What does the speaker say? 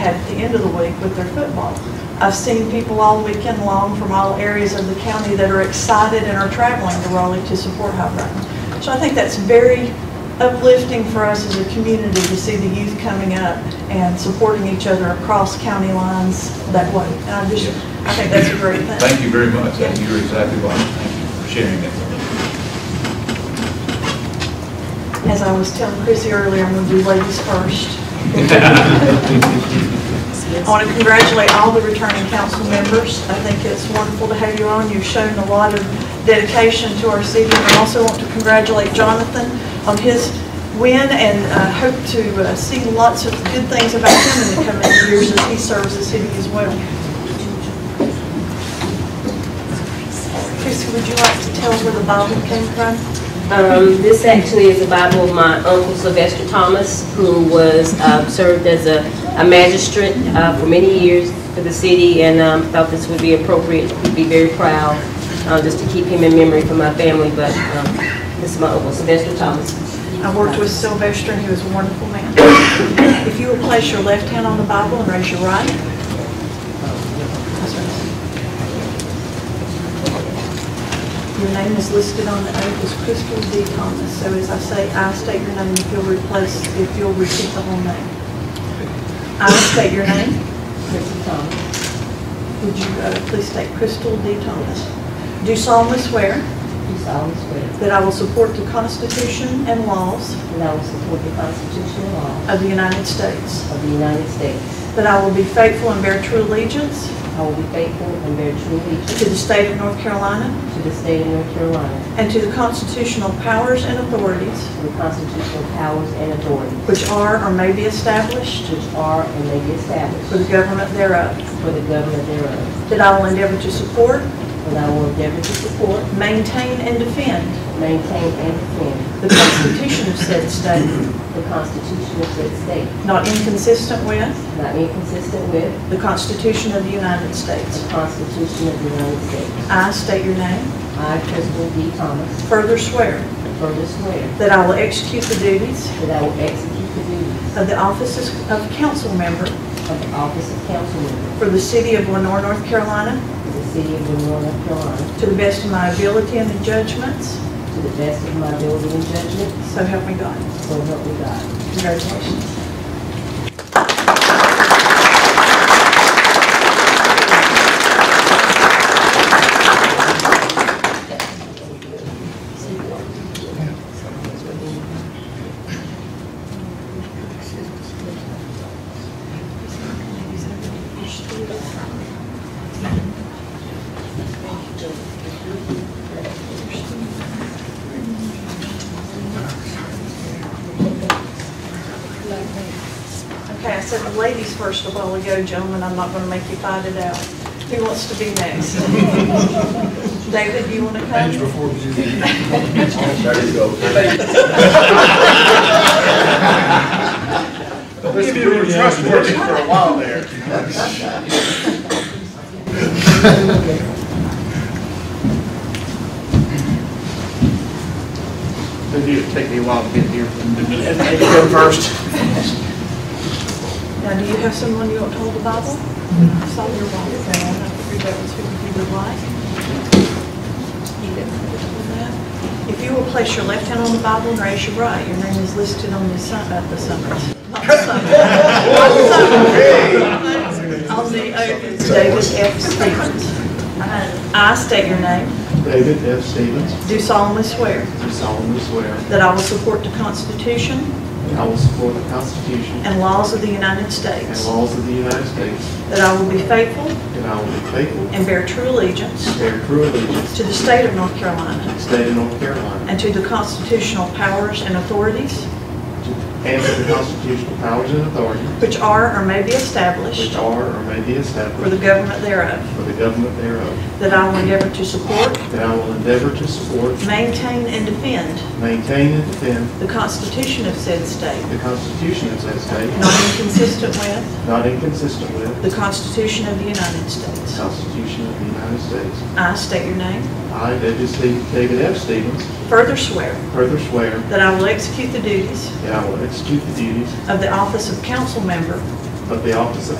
at the end of the week with their football. I've seen people all weekend long from all areas of the county that are excited and are traveling to Raleigh to support High Brighton. So I think that's very uplifting for us as a community to see the youth coming up and supporting each other across county lines that way. And I just, I think that's a great thing. Thank you very much. I think You're exactly right. Thank you for sharing that with us. As I was telling Chrissy earlier, I'm going to do ladies first. I want to congratulate all the returning council members. I think it's wonderful to have you on. You've shown a lot of dedication to our city. And I also want to congratulate Jonathan on his win and uh, hope to uh, see lots of good things about him in the coming years as he serves the city as well. Chrissy, would you like to tell where the Bible came from? Um, This actually is a Bible of my uncle Sylvester Thomas, who was, uh, served as a a magistrate uh, for many years for the city, and um, thought this would be appropriate, would be very proud, uh, just to keep him in memory for my family, but um, this is my uncle Sylvester Thomas. I worked with Sylvester, and he was a wonderful man. If you would place your left hand on the Bible and raise your right. Your name is listed on the oath as Crystal D. Thomas, so as I say, I state your name, if you'll replace, if you'll repeat the whole name. I state your name. Crystal Thomas. Would you uh, please state Crystal D. Thomas? Do solemnly swear Do solemnly swear that I will support the Constitution and laws that I will support the Constitution and laws of the United States. of the United States. That I will be faithful and bear true allegiance I will be faithful and bear true allegiance to the state of North Carolina to the state of North Carolina, and to the constitutional powers and authorities to the constitutional powers and authorities which are or may be established which are and may be for the established government thereof. for the government thereof, That I will endeavor to support, and I will endeavor to support, maintain, and defend maintain, and defend the Constitution of said state, the Constitution of said state, not inconsistent with not inconsistent with the Constitution of the United the States. Constitution of the United States. I state your name. I, Crystal D. Thomas, Further swear further swear that I will execute the duties that I will execute the duties of the offices of council member of the office of council member for the city of Lenore, North Carolina, for the city of Lenore, North Carolina, To the best of my ability and the judgments, To the best of my ability and judgment, so help me God. so help me God. Congratulations. Okay, I said the ladies first a while ago, gentlemen, I'm not going to make you fight it out. Who wants to be next? David, do you want to come? There you go. Let's give him a trust word for a while there. It'll take me a while to get here. And you go first. Now, do you have someone you want to hold the Bible? I saw your Bible, and I figured that was who you would like. You can hold that. If you will place your left hand on the Bible and raise your right, your name is listed on the sun, at the summons. Not the summons. Not the summons. On the oath is David F. Stevens. I- I state your name, David F. Stevens, do solemnly swear do solemnly swear that I will support the Constitution that I will support the Constitution and laws of the United and States, laws of the United States, that I will be faithful that I will be faithful and bear true allegiance and bear true allegiance To the state of North to Carolina. the state of North Carolina And to the constitutional powers and authorities and to the constitutional powers and authorities which are or may be which established are or may be for the established government thereof, for the government thereof, that I will endeavor to support, that I will endeavor to support, maintain, and defend maintain, and defend the Constitution of said state, the Constitution of said state, not inconsistent with not inconsistent with the Constitution of the United the States. Constitution of the United States. I state your name. I, David Ste- David F. Stevens, Further swear further swear that I will execute the duties that I will execute the duties of the office of council member of the office of